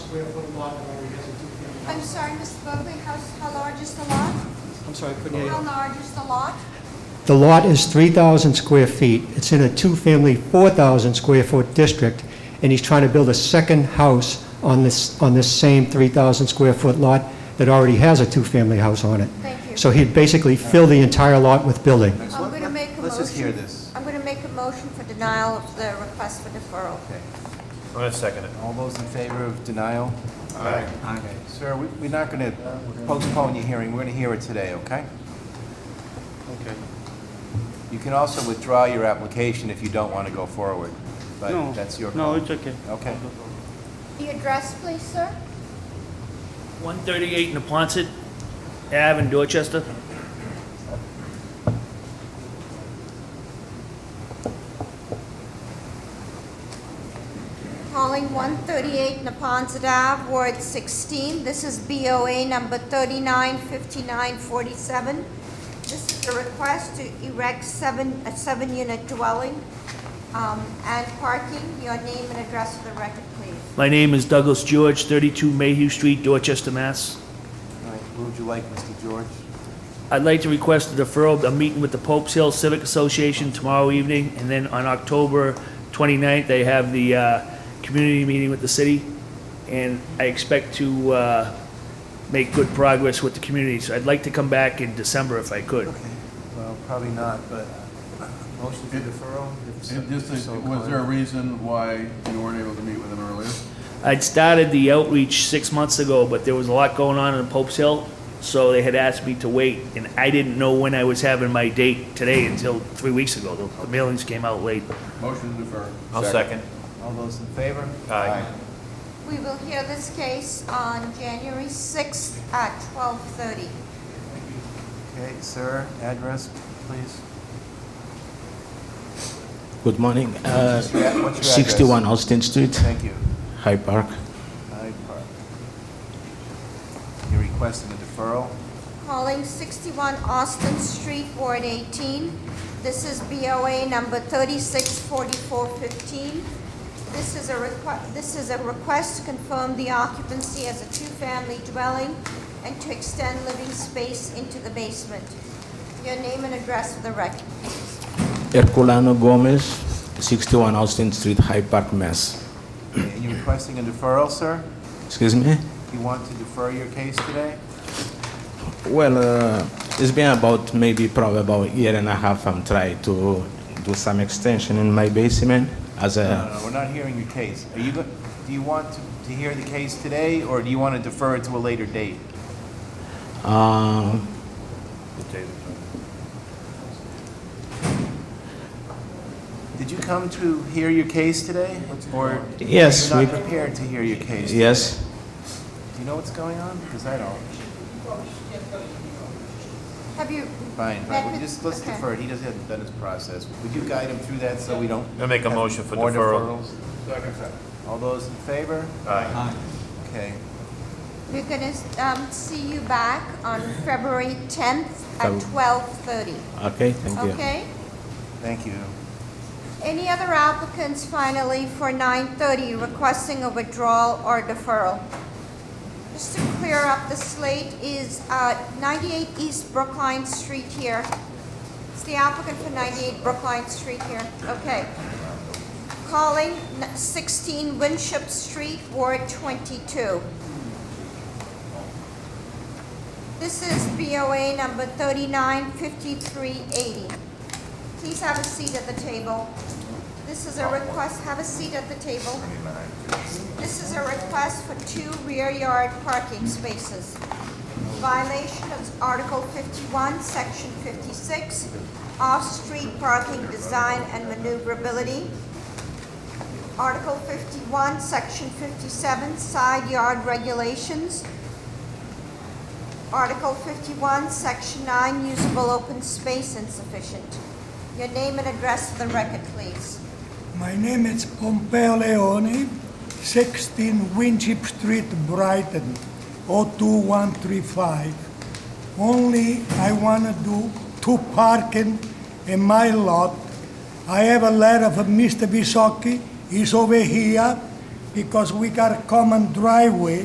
square foot lot that already has a two-family I'm house. sorry, Mr. Buckley, how, how large is the lot? I'm sorry, I couldn't hear How you. large is the lot? The lot is 3,000 square feet. It's in a two-family, 4,000 square foot district, and he's trying to build a second house on this, on this same 3,000 square foot lot that already has a two-family house on it. Thank you. So he'd basically fill the entire lot with building. Next I'm one. going to make a motion. Let's just hear this. I'm going to make a motion for denial of the request for deferral. Okay. I'm gonna second it. All those in favor of denial? Aye. Okay, sir, we- we're not going to postpone your hearing, we're going to hear it today, okay? Okay. You can also withdraw your application if you don't want to go forward, No, but that's your No, call. it's okay. Okay. The address, please, sir? 138 Napontet Ave in Dorchester. Calling 138 Napontet Ave, Ward 16. This is BOA number 395947. This is a request to erect seven, a seven-unit dwelling um, and parking. Your name and address for the record, please. My name is Douglas George, 32 Mayhew Street, Dorchester, Mass. All right, Who would you like, Mr. George? I'd like to request a deferral, a meeting with the Pope's Hill Civic Association tomorrow evening, and then on October 29th, they have the uh, community meeting with the city, and I expect to uh, make good progress with the community, so I'd like to come back in December if I could. Okay, well, probably not, but uh, motion for deferral? if And just, so was there a reason why you weren't able to meet with him earlier? I'd started the outreach six months ago, but there was a lot going on in Pope's Hill, so they had asked me to wait, and I didn't know when I was having my date today until three weeks ago. The the mailings came out late. Motion to defer. I'll second. All those in favor? Aye. We will hear this case on January 6th at 12:30. Okay, sir, address, please? Good morning. Uh, What's your ad- what's your address? 61 Austin Street, Thank you. Hyde Park. Hyde Park. You're requesting a deferral? Calling 61 Austin Street, Ward 18. This is BOA number 364415. This is a request, this is a request to confirm the occupancy as a two-family dwelling and to extend living space into the basement. Your name and address for the record. Herculano Gomez, 61 Austin Street, Hyde Park, Mass. Okay, You're requesting a deferral, sir? Excuse me? You want to defer your case today? Well, uh, it's been about maybe probably about a year and a half I'm trying to do some extension in my basement as No, no, a, no, we're not hearing your case. Are you, go- do you want to to hear the case today, or do you want to defer it to a later date? uh, Did you come to hear your case today? Or Yes, you're not we- prepared to hear your case? yes, Do you know what's going on? Because I don't. Have you Fine, That fine, we could- just, let's okay. defer it. He doesn't have done his process. Would you guide him through that so we don't? I make a have motion for more deferral. deferrals? All those in favor? Aye. Okay. We're going to see you back on February 10th at Feb- 12:30, okay, thank you. okay? Thank you. Any other applicants finally for 9:30 requesting a withdrawal or deferral? Just to clear up the slate is uh, 98 East Brookline Street here. It's the applicant for 98 Brookline Street here, okay. Calling n- 16 Winship Street, Ward 22. This is BOA number 395380. Please have a seat at the table. This is a request, have a seat at the table. This is a request for two rear yard parking spaces. Violation of Article 51, Section 56, off-street parking design and maneuverability. Article 51, Section 57, side yard regulations. Article 51, Section 9, usable open space insufficient. Your name and address for the record, please. My name is Pompeo Leone, 16 Winship Street, Brighton, 02135. Only I want to do two parking in my lot. I have a letter from Mr. Visocki, he's over here. because we got a common driveway